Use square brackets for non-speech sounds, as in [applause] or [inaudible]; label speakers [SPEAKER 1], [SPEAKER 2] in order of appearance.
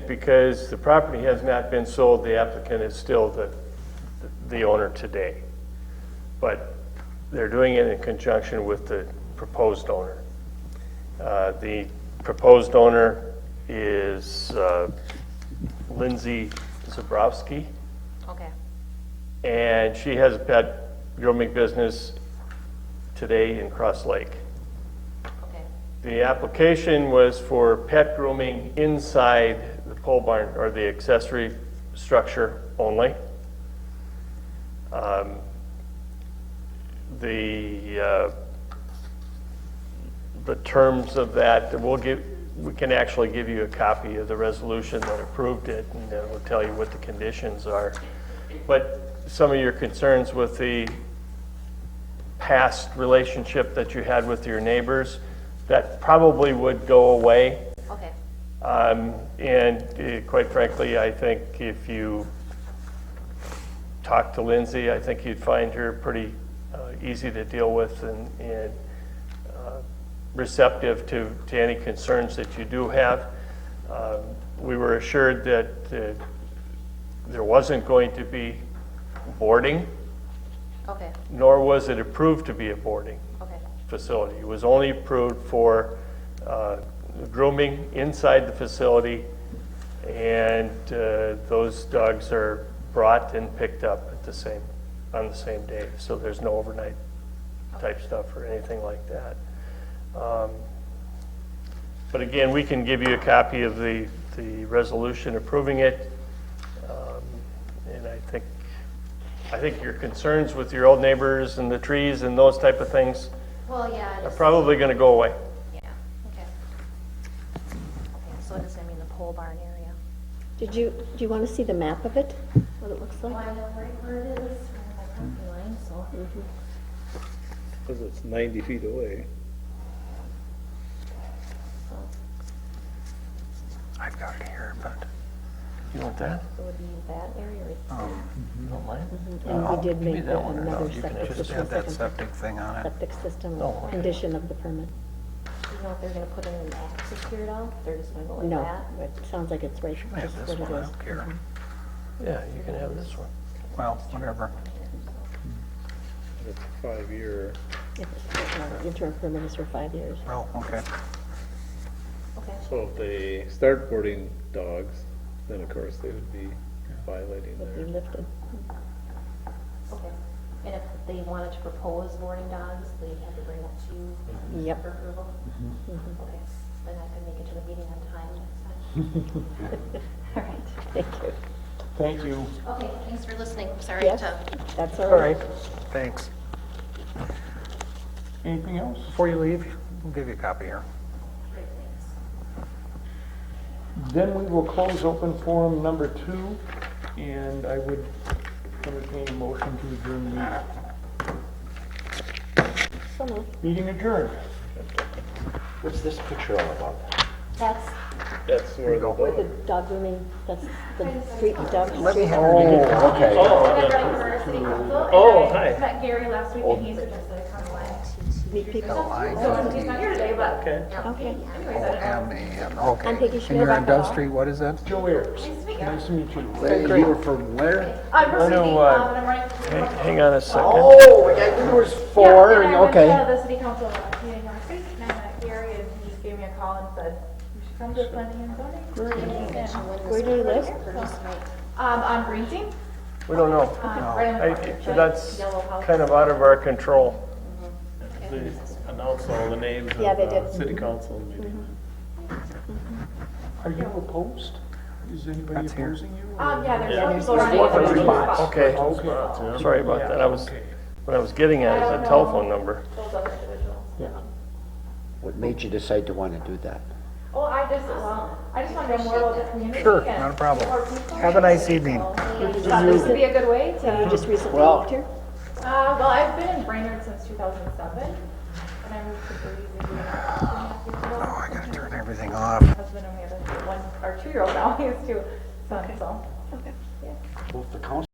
[SPEAKER 1] because the property has not been sold, the applicant is still the, the owner today. But they're doing it in conjunction with the proposed owner. Uh, The proposed owner is uh, Lindsay Zabrowski,
[SPEAKER 2] Okay,
[SPEAKER 1] and she has a pet grooming business today in Cross Lake.
[SPEAKER 2] okay,
[SPEAKER 1] The application was for pet grooming inside the pole barn or the accessory structure only. Um, The, uh, the terms of that, we'll give, we can actually give you a copy of the resolution that approved it, and it will tell you what the conditions are. But some of your concerns with the past relationship that you had with your neighbors, that probably would go away.
[SPEAKER 2] okay,
[SPEAKER 1] Um, And eh, quite frankly, I think if you talk to Lindsay, I think you'd find her pretty uh, easy to deal with and- and uh, receptive to, to any concerns that you do have. Um, We were assured that eh, there wasn't going to be boarding,
[SPEAKER 2] okay,
[SPEAKER 1] nor was it approved to be a boarding
[SPEAKER 2] okay,
[SPEAKER 1] facility. It was only approved for uh, grooming inside the facility, and uh, those dogs are brought and picked up at the same, on the same day. So there's no overnight type stuff or anything like that. Um, But again, we can give you a copy of the, the resolution approving it. Um, And I think, I think your concerns with your old neighbors and the trees and those type of things,
[SPEAKER 2] well, yeah,
[SPEAKER 1] are
[SPEAKER 2] it's-
[SPEAKER 1] probably going to go away.
[SPEAKER 2] yeah, okay. Okay, so it's gonna be in the pole barn area.
[SPEAKER 3] Did you, do you want to see the map of it, what it looks
[SPEAKER 2] Well,
[SPEAKER 3] like?
[SPEAKER 2] I know right where it is, from my property line, so.
[SPEAKER 4] Because it's 90 feet away.
[SPEAKER 1] I've got it here, but. You want that?
[SPEAKER 2] It would be that area right
[SPEAKER 3] Oh.
[SPEAKER 1] You don't mind?
[SPEAKER 3] And we did
[SPEAKER 1] me
[SPEAKER 3] make
[SPEAKER 1] that one, or no,
[SPEAKER 3] another
[SPEAKER 1] you can
[SPEAKER 3] septic
[SPEAKER 1] just
[SPEAKER 3] system,
[SPEAKER 5] Add that
[SPEAKER 3] second
[SPEAKER 5] septic thing on it.
[SPEAKER 3] septic system,
[SPEAKER 1] No, okay.
[SPEAKER 3] condition of the permit.
[SPEAKER 2] You know, if they're gonna put in an access here at all, they're just gonna go like
[SPEAKER 3] No,
[SPEAKER 2] that?
[SPEAKER 3] it sounds like it's right,
[SPEAKER 5] I
[SPEAKER 3] just
[SPEAKER 5] have this
[SPEAKER 3] what
[SPEAKER 5] one,
[SPEAKER 3] it
[SPEAKER 5] I
[SPEAKER 3] is. Mm-hmm.
[SPEAKER 5] don't care.
[SPEAKER 1] Yeah, you can have this one.
[SPEAKER 5] Well, whatever.
[SPEAKER 4] It's five-year.
[SPEAKER 3] If it's, uh, Interim permit is for five years.
[SPEAKER 5] Well, okay.
[SPEAKER 2] Okay,
[SPEAKER 4] So if they start boarding dogs, then of course they would be violating
[SPEAKER 3] It'll be
[SPEAKER 4] their.
[SPEAKER 3] lifted. [laughs]
[SPEAKER 2] okay. And if they wanted to propose boarding dogs, they'd have to bring it to you for
[SPEAKER 3] Yep. Mm-hmm.
[SPEAKER 2] approval? Okay, then I can make it to the meeting on time next
[SPEAKER 3] [laughs]
[SPEAKER 2] time. All right.
[SPEAKER 3] Thank you.
[SPEAKER 1] Thank you.
[SPEAKER 2] Okay, thanks for listening. Sorry
[SPEAKER 3] Yes,
[SPEAKER 2] to
[SPEAKER 3] that's all right.
[SPEAKER 5] Thanks.
[SPEAKER 1] Anything else?
[SPEAKER 5] Before you leave, we'll give you a copy here.
[SPEAKER 6] Then we will close open forum number two, and I would entertain a motion to adjourn the
[SPEAKER 3] So moved.
[SPEAKER 6] meeting. Meeting adjourned.
[SPEAKER 3] That's
[SPEAKER 4] That's where the
[SPEAKER 3] where
[SPEAKER 4] dog.
[SPEAKER 3] the dog grooming, that's the street dog.
[SPEAKER 5] Let me
[SPEAKER 3] street-
[SPEAKER 5] have your meeting.
[SPEAKER 1] Oh, hi.
[SPEAKER 7] met Gary last week, and he's interested in coming live.
[SPEAKER 3] Meet people.
[SPEAKER 7] So he's not here today, but
[SPEAKER 3] Okay.
[SPEAKER 7] anyways, I don't know.
[SPEAKER 5] Okay. Um,
[SPEAKER 3] I'm Peggy
[SPEAKER 5] And you're on Dove
[SPEAKER 3] Schmidt.
[SPEAKER 5] Street, what is that?
[SPEAKER 6] Joe Ayers,
[SPEAKER 7] Nice to meet you.
[SPEAKER 6] nice to meet you.
[SPEAKER 8] Hey, you were from where?
[SPEAKER 7] I'm from
[SPEAKER 1] know,
[SPEAKER 7] Cindy,
[SPEAKER 1] uh,
[SPEAKER 7] um, and I'm running for.
[SPEAKER 1] Hang on a second.
[SPEAKER 8] Oh, I knew there was four, and-
[SPEAKER 7] Yeah, and I
[SPEAKER 8] okay.
[SPEAKER 7] went to the city council uh, meeting last week, and I met Gary, and he gave me a call and said, you should come to the planning and zoning. And,
[SPEAKER 3] Where do you live?
[SPEAKER 7] Um, on Green Team,
[SPEAKER 1] We don't know.
[SPEAKER 7] um, right on
[SPEAKER 1] I-
[SPEAKER 7] the corner.
[SPEAKER 1] That's kind of out of our control.
[SPEAKER 4] They announce all the names of
[SPEAKER 3] Yeah, they
[SPEAKER 4] the
[SPEAKER 3] did.
[SPEAKER 4] city council meeting.
[SPEAKER 6] Are you opposed? Is anybody
[SPEAKER 5] That's here.
[SPEAKER 6] opposing you?
[SPEAKER 7] Um, yeah, there's
[SPEAKER 3] Yeah,
[SPEAKER 7] one
[SPEAKER 3] there's-
[SPEAKER 7] people running.
[SPEAKER 6] there's one
[SPEAKER 7] Those
[SPEAKER 1] Okay,
[SPEAKER 6] Okay.
[SPEAKER 1] sorry about that. I was, what I was getting at is a telephone number.
[SPEAKER 7] other individuals.
[SPEAKER 8] What made you decide to want to do that?
[SPEAKER 7] Well, I just, well, I just want to know more about the community.
[SPEAKER 5] Sure,
[SPEAKER 7] and
[SPEAKER 5] not a problem.
[SPEAKER 7] more people.
[SPEAKER 5] Have a nice evening. Oh,
[SPEAKER 7] Thought this would be a good way to.
[SPEAKER 3] You just recently
[SPEAKER 8] Well-
[SPEAKER 3] moved here?
[SPEAKER 7] Uh, well, I've been in Brainerd since 2007, and I moved to Boise two and a half years ago.
[SPEAKER 5] Oh, I gotta turn everything off.
[SPEAKER 7] My husband [laughs] and we have a one, or two-year-old now, he has two sons, so.
[SPEAKER 8] Both the council